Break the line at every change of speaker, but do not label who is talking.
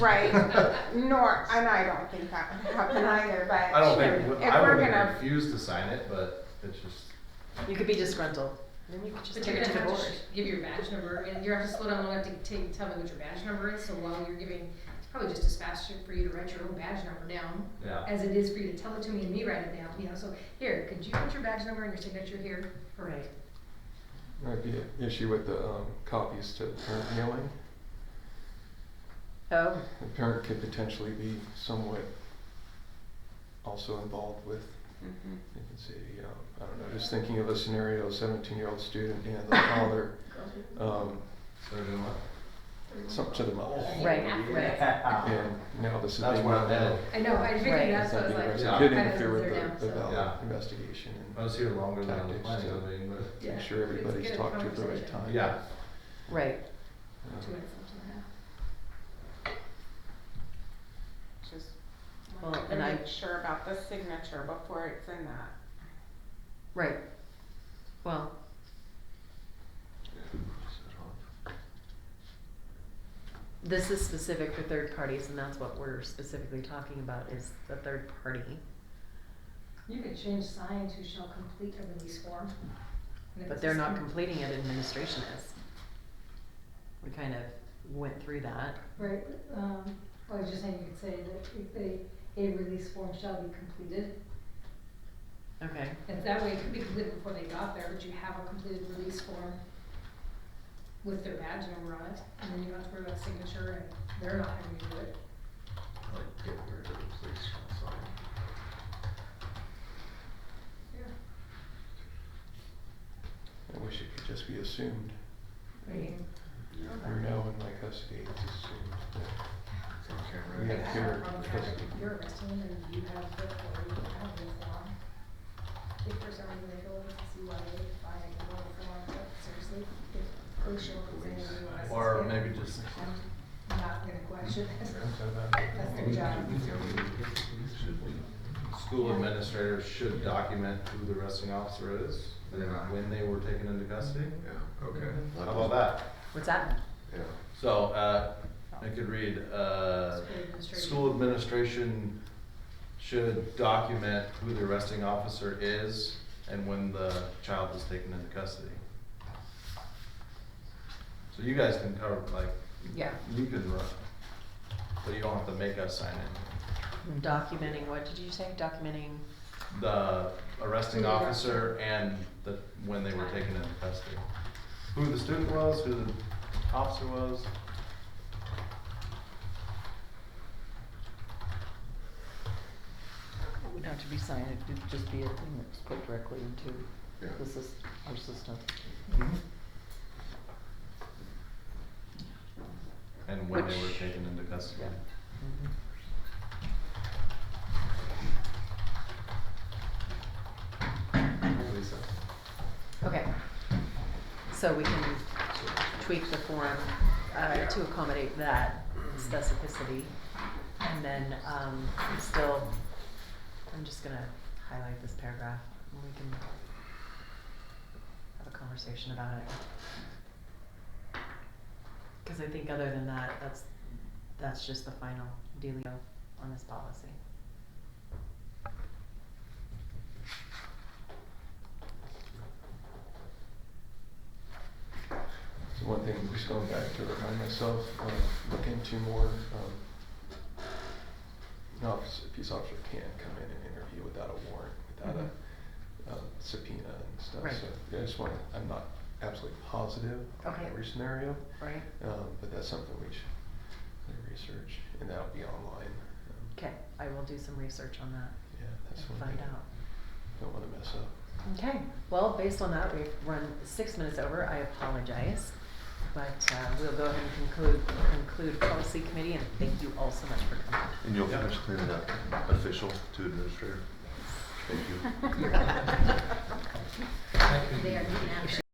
Right, nor, and I don't think that would happen either, but.
I don't think,
If
I
we're
would
gonna,
refuse to sign it, but it's just,
You could be disgruntled. Then you could just
But
take
you're
it
gonna
to the
have to
board.
sh- give your badge number, and you're gonna have to slow down long enough to t- tell me what your badge number is, so while you're giving, it's probably just as fast to- for you to write your own badge number down
yeah.
as it is for you to tell it to me and me write it down, you know, so, here, could you put your badge number and your signature here?
Right.
Might be an issue with the um, copies to parent mailing.
Oh,
The parent could potentially be somewhat also involved with,
Mm-hmm.
Mhm.
you can see, you know, I don't know, just thinking of a scenario, seventeen-year-old student and the father, um,
So we're doing what?
something to the mother.
Right,
And now this is.
That's
being
where I'm
known
headed.
out.
I know, I
Right.
figured that's what I was like.
It's
Yeah.
not being
my
right. It
husband's
could interfere
there now,
with the, the
so-
valid
Yeah.
investigation
I
and
was here longer than I was
Tactics
planning
to-
on being, but,
Yeah,
make sure
but it's a
everybody's
good
talked to at the right
conversation.
time.
yeah.
right.
Um,
Two minutes, something like that.
just,
Well,
wanted to
and I-
make sure about the signature before it's in that.
Right. Well, this is specific for third parties, and that's what we're specifically talking about is the third party.
You could change signs who shall complete a release form. And if
But
it's
they're
a
not
sign-
completing it, administration is. We kind of went through that.
Right, um, I was just saying, you could say that if they, a release form shall be completed.
Okay.
And that way it could be completed before they got there, but you have a completed release form with their badge number on it, and then you don't have to worry about signature and they're not having to do it.
Like, get rid of the police shall sign.
I wish it could just be assumed.
I mean,
We're now in my custody, it's assumed that we
like,
have
I have a
parent
problem with
custody.
having- You're arresting them and you have the authority to have the form. If for some reason they go in to see why they find a form, but seriously, if crucial, it's saying you want us to.
Or
see it,
maybe just.
I'm not gonna question it. That's their job.
School administrators should document who the arresting officer is, and
Yeah.
when they were taken into custody.
Yeah, okay.
How about that?
What's that?
Yeah.
So, uh, I could read, uh,
School administration.
school administration should document who the arresting officer is and when the child was taken into custody. So you guys can cover, like,
Yeah.
you can run, but you don't have to make us sign it.
Documenting, what did you say? Documenting,
The arresting
Who the
officer and the, when they were taken into custody. Who the student was, who the officer was.
It would have to be signed, it would just be a thing that's put directly into
Yeah.
the sys- our system.
And when they were
Which-
taken into custody. Lisa.
okay. So we can tweak the form, uh, to accommodate that specificity. And then, um, I'm still, I'm just gonna highlight this paragraph, and we can have a conversation about it. Cause I think other than that, that's, that's just the final dealio on this policy.
So one thing, just going back to remind myself, um, look into more, um, an officer, a peace officer can come in and interview without a warrant, without a, um, subpoena and stuff.
Mm-hmm. Right.
So I just wanna, I'm not absolutely positive on
Okay.
every scenario,
Right.
um, but that's something we should uh, research, and that'll be online. Um,
Okay, I will do some research on that
Yeah, that's
and
one
find
thing,
out.
don't wanna mess up.
Okay, well, based on that, we've run six minutes over, I apologize. But uh, we'll go ahead and conclude, conclude policy committee and thank you all so much for coming.
And you'll
Yeah.
finish cleaning up official to administrator? Thank you.
They are getting out of